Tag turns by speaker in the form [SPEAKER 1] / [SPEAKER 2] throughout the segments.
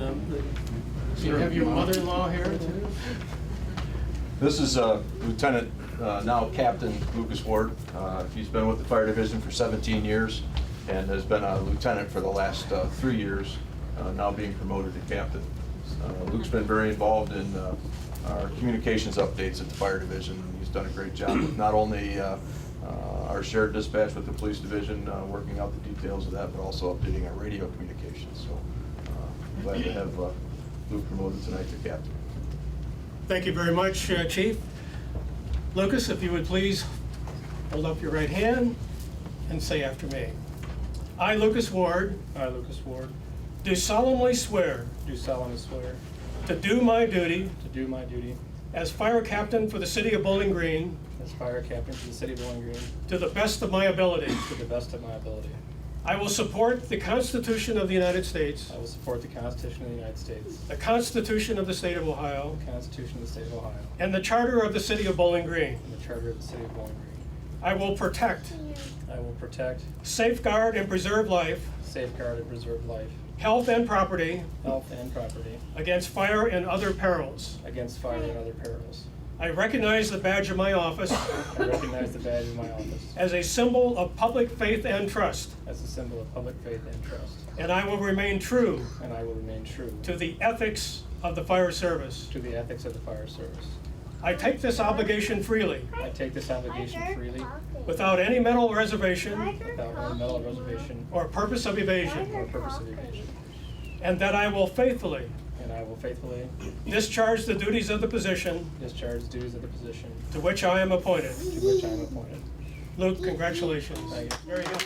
[SPEAKER 1] um, You have your mother-in-law here too?
[SPEAKER 2] This is uh, Lieutenant, uh, now Captain Lucas Ward. Uh, He's been with the fire division for 17 years and has been a lieutenant for the last uh, three years, uh, now being promoted to captain. Uh, Luke's been very involved in uh, our communications updates at the fire division. He's done a great job, with not only uh, uh, our shared dispatch with the police division, uh, working out the details of that, but also updating our radio communications. So uh, glad to have uh, Luke promoted tonight to captain.
[SPEAKER 1] Thank you very much, uh, Chief. Lucas, if you would please hold up your right hand and say after me. I, Lucas Ward,
[SPEAKER 3] I, Lucas Ward,
[SPEAKER 1] do solemnly swear
[SPEAKER 3] do solemnly swear
[SPEAKER 1] to do my duty
[SPEAKER 3] to do my duty
[SPEAKER 1] as fire captain for the city of Bowling Green
[SPEAKER 3] as fire captain for the city of Bowling Green
[SPEAKER 1] to the best of my ability.
[SPEAKER 3] to the best of my ability.
[SPEAKER 1] I will support the Constitution of the United States,
[SPEAKER 3] I will support the Constitution of the United States,
[SPEAKER 1] the Constitution of the state of Ohio,
[SPEAKER 3] the Constitution of the state of Ohio,
[SPEAKER 1] and the Charter of the city of Bowling Green.
[SPEAKER 3] and the charter of the city of Bowling Green.
[SPEAKER 1] I will protect,
[SPEAKER 3] I will protect,
[SPEAKER 1] safeguard, and preserve life,
[SPEAKER 3] safeguard, and preserve life,
[SPEAKER 1] health, and property
[SPEAKER 3] health, and property
[SPEAKER 1] against fire and other perils.
[SPEAKER 3] against fire and other perils.
[SPEAKER 1] I recognize the badge of my office
[SPEAKER 3] I recognize the badge of my office
[SPEAKER 1] as a symbol of public faith and trust,
[SPEAKER 3] as a symbol of public faith and trust,
[SPEAKER 1] and I will remain true
[SPEAKER 3] and I will remain true
[SPEAKER 1] to the ethics of the fire service.
[SPEAKER 3] to the ethics of the fire service.
[SPEAKER 1] I take this obligation freely,
[SPEAKER 3] I take this obligation freely
[SPEAKER 1] without any mental reservation
[SPEAKER 3] without any mental reservation
[SPEAKER 1] or purpose of
[SPEAKER 3] or
[SPEAKER 1] evasion,
[SPEAKER 3] purpose of evasion,
[SPEAKER 1] and that I will faithfully
[SPEAKER 3] and I will faithfully
[SPEAKER 1] discharge the duties of the position
[SPEAKER 3] Discharge the duties of the position
[SPEAKER 1] to which I am appointed.
[SPEAKER 3] to which I am appointed.
[SPEAKER 1] Luke, congratulations. Very good.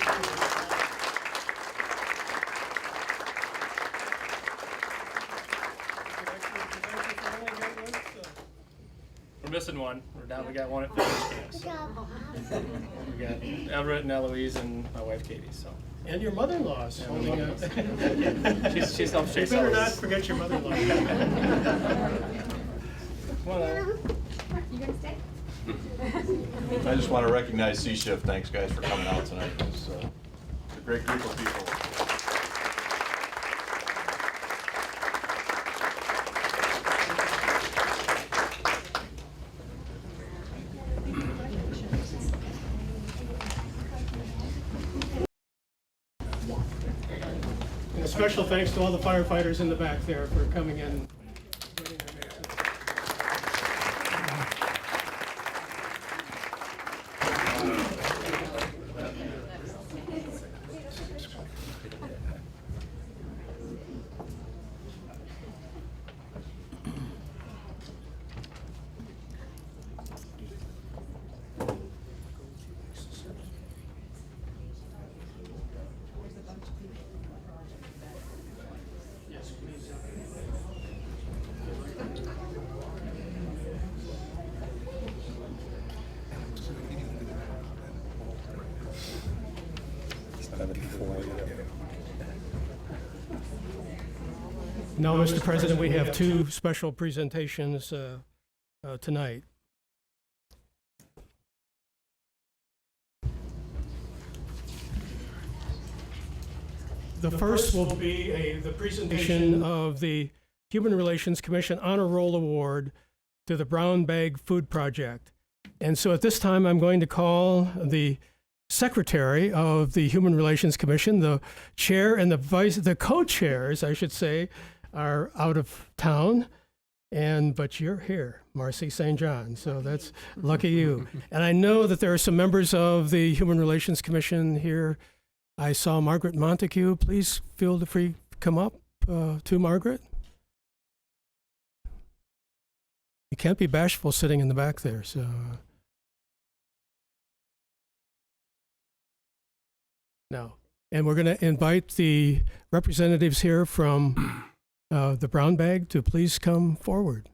[SPEAKER 3] We're missing one. We're down. We got one at fitness camp. So we got Everett and Eloise and my wife Katie. So
[SPEAKER 1] And your mother-in-law's holding a.
[SPEAKER 3] she's she's helped
[SPEAKER 1] You
[SPEAKER 3] chase
[SPEAKER 1] better not
[SPEAKER 3] Eloise.
[SPEAKER 1] forget your mother-in-law.
[SPEAKER 3] Well, uh,
[SPEAKER 4] You gonna stay?
[SPEAKER 2] I just want to recognize C-Shift. Thanks, guys, for coming out tonight. It's uh, a great group of people.
[SPEAKER 1] And a special thanks to all the firefighters in the back there for coming in. Now, Mr. President, we have two special presentations uh, uh, tonight. The first will be a- the presentation of the Human Relations Commission Honor Roll Award to the Brown Bag Food Project. And so at this time, I'm going to call the secretary of the Human Relations Commission. The chair and the vice, the co-chairs, I should say, are out of town. And but you're here, Marcy St. John. So that's lucky you. And I know that there are some members of the Human Relations Commission here. I saw Margaret Montague. Please feel free to come up uh, to Margaret. You can't be bashful sitting in the back there. So. uh, No. And we're going to invite the representatives here from uh, the Brown Bag to please come forward.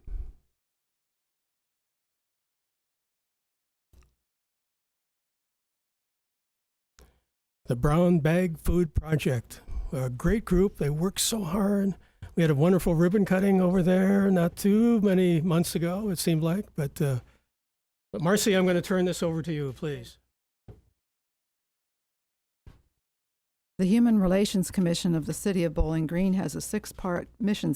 [SPEAKER 1] The Brown Bag Food Project, a great group. They work so hard. We had a wonderful ribbon cutting over there not too many months ago, it seemed like. But, uh, but Marcy, I'm going to turn this over to you, please.
[SPEAKER 5] The Human Relations Commission of the City of Bowling Green has a six-part mission